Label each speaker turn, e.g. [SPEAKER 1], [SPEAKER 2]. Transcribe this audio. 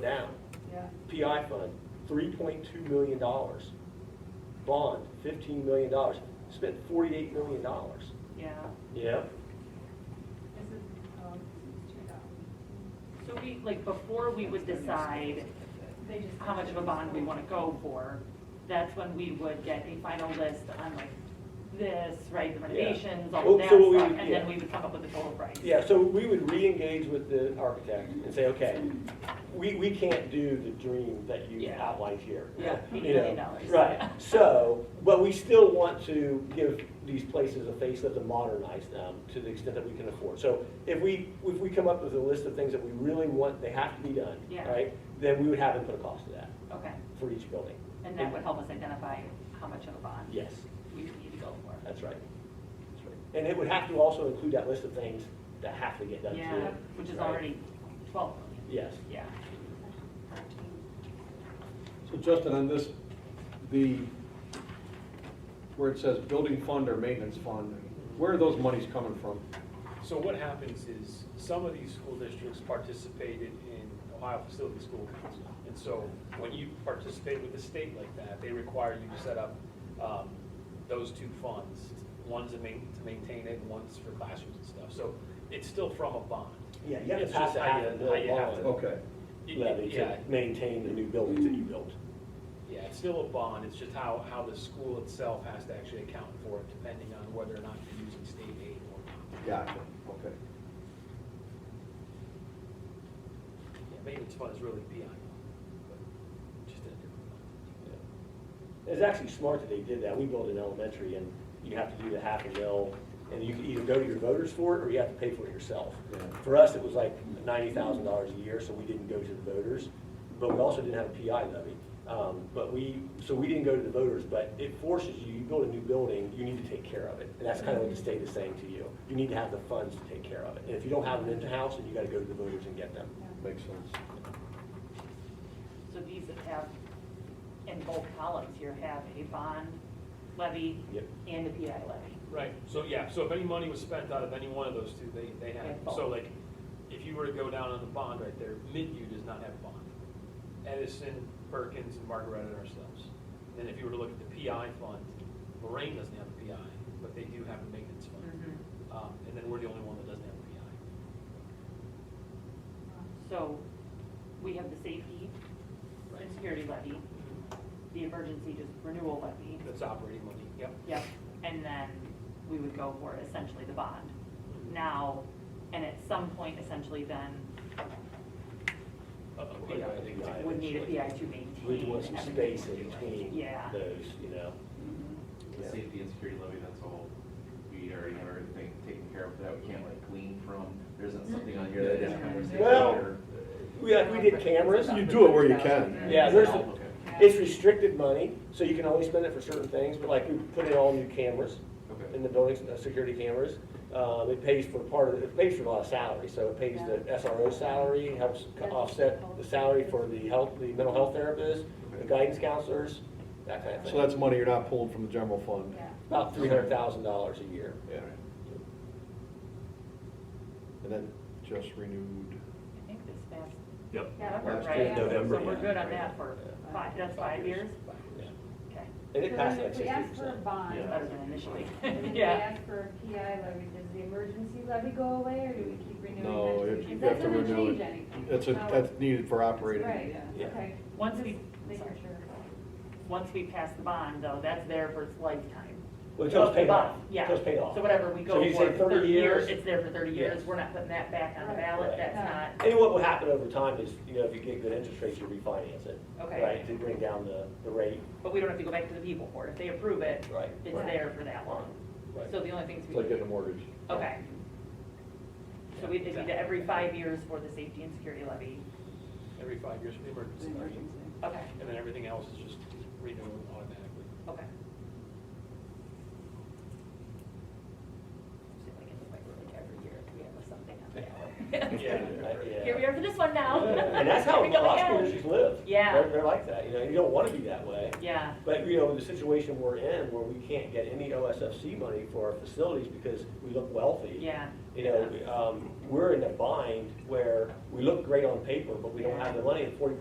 [SPEAKER 1] down.
[SPEAKER 2] Yeah,
[SPEAKER 1] PI fund, three point two million dollars. Bond, fifteen million dollars. Spent forty-eight million dollars.
[SPEAKER 2] yeah.
[SPEAKER 1] Yeah.
[SPEAKER 2] This is, um, this is two thousand.
[SPEAKER 3] So we, like, before we would decide
[SPEAKER 2] They just.
[SPEAKER 3] how much of a bond we want to go for, that's when we would get a final list on like this, right, the renovations, all
[SPEAKER 1] Oh,
[SPEAKER 3] of that
[SPEAKER 1] so what we
[SPEAKER 3] stuff,
[SPEAKER 1] would-
[SPEAKER 3] and then
[SPEAKER 1] yeah.
[SPEAKER 3] we would come up with the total price.
[SPEAKER 1] Yeah, so we would re-engage with the architect and say, okay, we, we can't do the dream that you
[SPEAKER 3] Yeah.
[SPEAKER 1] outlined here.
[SPEAKER 3] Yeah,
[SPEAKER 1] You
[SPEAKER 3] $80 million.
[SPEAKER 1] know, Right, so, but we still want to give these places a facelift and modernize them to the extent that we can afford. So if we, if we come up with a list of things that we really want, they have to be done,
[SPEAKER 3] Yeah.
[SPEAKER 1] right? Then we would have them put a cost to that.
[SPEAKER 3] Okay,
[SPEAKER 1] for each building.
[SPEAKER 3] and that would help us identify how much of a bond
[SPEAKER 1] Yes,
[SPEAKER 3] we would need to go for.
[SPEAKER 1] that's right. That's right. And it would have to also include that list of things that have to get done too.
[SPEAKER 3] Yeah, which is
[SPEAKER 1] right?
[SPEAKER 3] already twelve million,
[SPEAKER 1] Yes.
[SPEAKER 3] yeah.
[SPEAKER 4] So Justin, on this, the, where it says building fund or maintenance fund, where are those monies coming from?
[SPEAKER 5] So what happens is, some of these school districts participated in Ohio Facility School Council. And so when you participate with the state like that, they require you to set up um, those two funds. One's to main- to maintain it, and one's for classrooms and stuff. So it's still from a bond.
[SPEAKER 1] Yeah, you have to
[SPEAKER 5] It's
[SPEAKER 1] pass
[SPEAKER 5] just
[SPEAKER 1] a
[SPEAKER 5] how
[SPEAKER 1] half
[SPEAKER 5] you-
[SPEAKER 1] a
[SPEAKER 5] how you
[SPEAKER 1] million
[SPEAKER 5] have
[SPEAKER 1] bond.
[SPEAKER 5] to-
[SPEAKER 4] Okay,
[SPEAKER 5] Y- y-
[SPEAKER 1] Levy
[SPEAKER 5] yeah.
[SPEAKER 1] to maintain the new buildings that you built.
[SPEAKER 5] Yeah, it's still a bond, it's just how, how the school itself has to actually account for it, depending on whether or not you're using state aid or not.
[SPEAKER 4] gotcha, okay.
[SPEAKER 5] Yeah, Maintenance fund is really PI, but just in a different fund.
[SPEAKER 1] It's actually smart that they did that. We built an elementary and you have to do the half a mil and you can either go to your voters for it or you have to pay for it yourself.
[SPEAKER 4] Yeah.
[SPEAKER 1] For us, it was like ninety thousand dollars a year, so we didn't go to the voters, but we also didn't have a PI levy. Um, but we, so we didn't go to the voters, but it forces you, you build a new building, you need to take care of it. And that's kind of what the state is saying to you. You need to have the funds to take care of it. And if you don't have them in-house, then you gotta go to the voters and get them.
[SPEAKER 4] Makes sense.
[SPEAKER 3] So these that have, in both columns here, have a bond levy
[SPEAKER 1] Yep.
[SPEAKER 3] and a PI levy.
[SPEAKER 5] Right, so yeah, so if any money was spent out of any one of those two, they, they
[SPEAKER 3] They
[SPEAKER 5] have,
[SPEAKER 3] have both.
[SPEAKER 5] so like, if you were to go down on the bond right there, Midview does not have a bond. Edison, Perkins, and Margaret and ourselves. Then if you were to look at the PI fund, Lorraine doesn't have a PI, but they do have a maintenance fund.
[SPEAKER 3] Mm-hmm.
[SPEAKER 5] Um, and then we're the only one that doesn't have a PI.
[SPEAKER 3] So we have the safety and security levy, the emergency just renewal levy.
[SPEAKER 5] That's operating money, yep.
[SPEAKER 3] Yep, and then we would go for essentially the bond now, and at some point essentially then
[SPEAKER 5] A- a PI, they-
[SPEAKER 1] Yeah.
[SPEAKER 3] would need a PI to
[SPEAKER 1] We
[SPEAKER 3] maintain
[SPEAKER 1] want some
[SPEAKER 3] everything
[SPEAKER 1] space
[SPEAKER 3] we're
[SPEAKER 1] in
[SPEAKER 3] doing.
[SPEAKER 1] between
[SPEAKER 3] Yeah.
[SPEAKER 1] those, you know?
[SPEAKER 6] The
[SPEAKER 1] Yeah.
[SPEAKER 6] safety and security levy, that's all, we already have everything taken care of, that we can't like glean from, there isn't something on here that is conversation.
[SPEAKER 1] Well, We, uh, we did cameras.
[SPEAKER 4] You do it where you can.
[SPEAKER 1] Yeah, there's, a-
[SPEAKER 6] Okay.
[SPEAKER 1] it's restricted money, so you can only spend it for certain things, but like we put in all new cameras
[SPEAKER 6] Okay.
[SPEAKER 1] in the buildings, uh, security cameras. Um, it pays for part of, it pays for a lot of salaries, so it pays the SRO salary, helps co- offset the salary for the health, the mental health therapists, the guidance counselors, that kind of thing.
[SPEAKER 4] So that's money you're not pulling from the general fund?
[SPEAKER 2] Yeah.
[SPEAKER 1] About three hundred thousand dollars a year.
[SPEAKER 4] Yeah. And then just renewed,
[SPEAKER 3] I think this past.
[SPEAKER 1] Yep.
[SPEAKER 2] Yeah,
[SPEAKER 3] November,
[SPEAKER 2] that's
[SPEAKER 3] right?
[SPEAKER 2] in November,
[SPEAKER 3] So we're
[SPEAKER 1] yeah.
[SPEAKER 3] good on that for five, that's five years?
[SPEAKER 1] Yeah.
[SPEAKER 3] Okay,
[SPEAKER 1] And it passed
[SPEAKER 2] So
[SPEAKER 1] like
[SPEAKER 2] if we
[SPEAKER 1] sixty
[SPEAKER 2] ask for a
[SPEAKER 1] percent.
[SPEAKER 2] bond,
[SPEAKER 3] better than initially.
[SPEAKER 2] and if we
[SPEAKER 3] Yeah.
[SPEAKER 2] ask for a PI levy, does the emergency levy go away, or do we keep renewing that?
[SPEAKER 4] no,
[SPEAKER 2] too?
[SPEAKER 4] if you
[SPEAKER 2] Because
[SPEAKER 4] have to
[SPEAKER 2] That doesn't
[SPEAKER 4] renew
[SPEAKER 2] change
[SPEAKER 4] it.
[SPEAKER 2] anything.
[SPEAKER 4] That's a,
[SPEAKER 2] No,
[SPEAKER 4] that's needed for operating.
[SPEAKER 2] Right,
[SPEAKER 1] Yeah.
[SPEAKER 2] okay.
[SPEAKER 3] Once we-
[SPEAKER 2] Just Making sure.
[SPEAKER 3] Once we pass the bond, though, that's there for its lifetime.
[SPEAKER 1] Well, until it's paid off.
[SPEAKER 3] Yeah.
[SPEAKER 1] Until it's paid off.
[SPEAKER 3] So whatever we
[SPEAKER 1] So
[SPEAKER 3] go
[SPEAKER 1] you
[SPEAKER 3] for,
[SPEAKER 1] say
[SPEAKER 3] thirty years, it's there for thirty
[SPEAKER 1] Yes.
[SPEAKER 3] years, we're not putting that back on the
[SPEAKER 2] Right.
[SPEAKER 3] ballot,
[SPEAKER 1] Right.
[SPEAKER 3] that's
[SPEAKER 2] Yeah.
[SPEAKER 3] not,
[SPEAKER 1] And what will happen over time is, you know, if you get good interest rates, you refinance it.
[SPEAKER 3] Okay.
[SPEAKER 1] Right, to bring down the, the rate.
[SPEAKER 3] but we don't have to go back to the people for it, if they approve it,
[SPEAKER 1] Right.
[SPEAKER 3] it's there for that long.
[SPEAKER 1] Right.
[SPEAKER 3] So the only things we.
[SPEAKER 4] It's like getting a mortgage.
[SPEAKER 3] Okay. So we, it'd be the every five years for the safety and security levy,
[SPEAKER 5] Every five years, emergency levy.
[SPEAKER 3] okay,
[SPEAKER 5] And then everything else is just renewed automatically.
[SPEAKER 3] okay. See if I can look like, like every year, if we have something on the ballot.
[SPEAKER 1] Yeah.
[SPEAKER 3] Here we are for this one now.
[SPEAKER 1] Yeah. And that's how a
[SPEAKER 3] Here we go
[SPEAKER 1] lot of school
[SPEAKER 3] again.
[SPEAKER 1] districts live.
[SPEAKER 3] Yeah.
[SPEAKER 1] They're, they're like that, you know, you don't wanna be that way.
[SPEAKER 3] Yeah,
[SPEAKER 1] But, you know, the situation we're in, where we can't get any OSFC money for our facilities because we look wealthy.
[SPEAKER 3] yeah.
[SPEAKER 1] You know, um, we're in a bind where we look great on paper, but we don't have the money, and forty